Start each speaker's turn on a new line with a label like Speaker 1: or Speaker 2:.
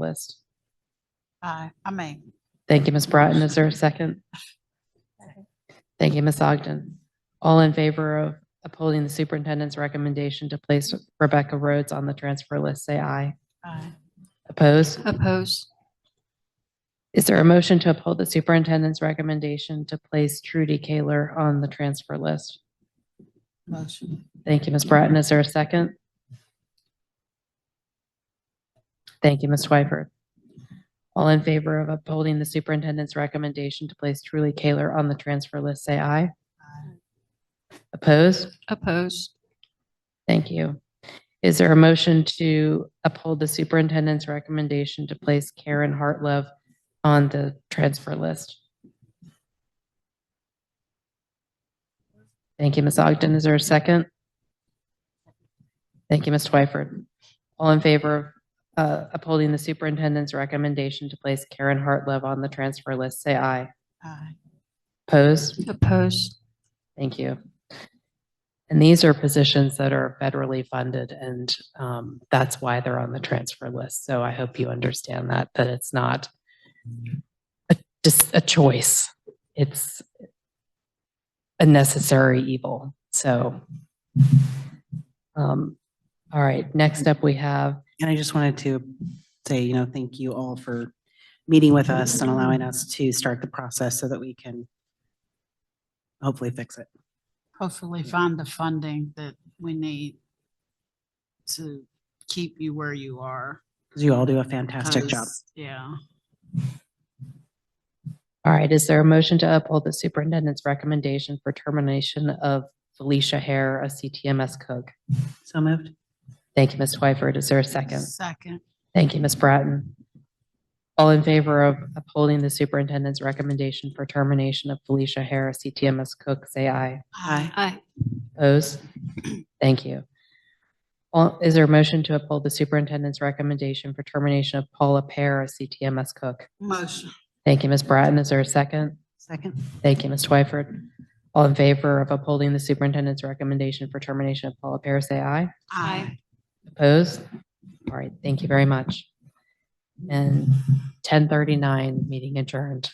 Speaker 1: list.
Speaker 2: Aye, I mean,
Speaker 1: Thank you, Ms. Bratton. Is there a second? Thank you, Ms. Ogden. All in favor of upholding the superintendent's recommendation to place Rebecca Rhodes on the transfer list, say aye.
Speaker 2: aye,
Speaker 1: Opposed?
Speaker 3: Oppose.
Speaker 1: Is there a motion to uphold the superintendent's recommendation to place Trudy Kaler on the transfer list?
Speaker 2: motion,
Speaker 1: Thank you, Ms. Bratton. Is there a second? Thank you, Ms. Twyford. All in favor of upholding the superintendent's recommendation to place Trudy Kaler on the transfer list, say aye.
Speaker 2: aye,
Speaker 1: Opposed?
Speaker 3: Oppose.
Speaker 1: Thank you. Is there a motion to uphold the superintendent's recommendation to place Karen Hartlove on the transfer list? Thank you, Ms. Ogden. Is there a second? Thank you, Ms. Twyford. All in favor of uh, upholding the superintendent's recommendation to place Karen Hartlove on the transfer list, say aye.
Speaker 2: aye,
Speaker 1: Opposed?
Speaker 3: Oppose.
Speaker 1: Thank you. And these are positions that are federally funded and um, that's why they're on the transfer list. So I hope you understand that, that it's not a- just a choice. It's a necessary evil. So. um, All right, next up we have,
Speaker 4: And I just wanted to say, you know, thank you all for meeting with us and allowing us to start the process so that we can hopefully fix it.
Speaker 2: hopefully find the funding that we need to keep you where you are.
Speaker 4: Because you all do a fantastic job.
Speaker 2: 'cause- Yeah,
Speaker 1: all right, is there a motion to uphold the superintendent's recommendation for termination of Felicia Hare, a CTMS cook?
Speaker 4: So moved?
Speaker 1: Thank you, Ms. Twyford. Is there a second?
Speaker 2: second,
Speaker 1: Thank you, Ms. Bratton. All in favor of upholding the superintendent's recommendation for termination of Felicia Harris, CTMS cook, say aye.
Speaker 2: aye,
Speaker 3: Aye.
Speaker 1: Opposed? Thank you. All- Is there a motion to uphold the superintendent's recommendation for termination of Paula Pear, a CTMS cook?
Speaker 2: motion,
Speaker 1: Thank you, Ms. Bratton. Is there a second?
Speaker 4: Second?
Speaker 1: Thank you, Ms. Twyford. All in favor of upholding the superintendent's recommendation for termination of Paula Pear, say aye.
Speaker 2: aye,
Speaker 1: Opposed? All right, thank you very much. And 10:39, meeting adjourned.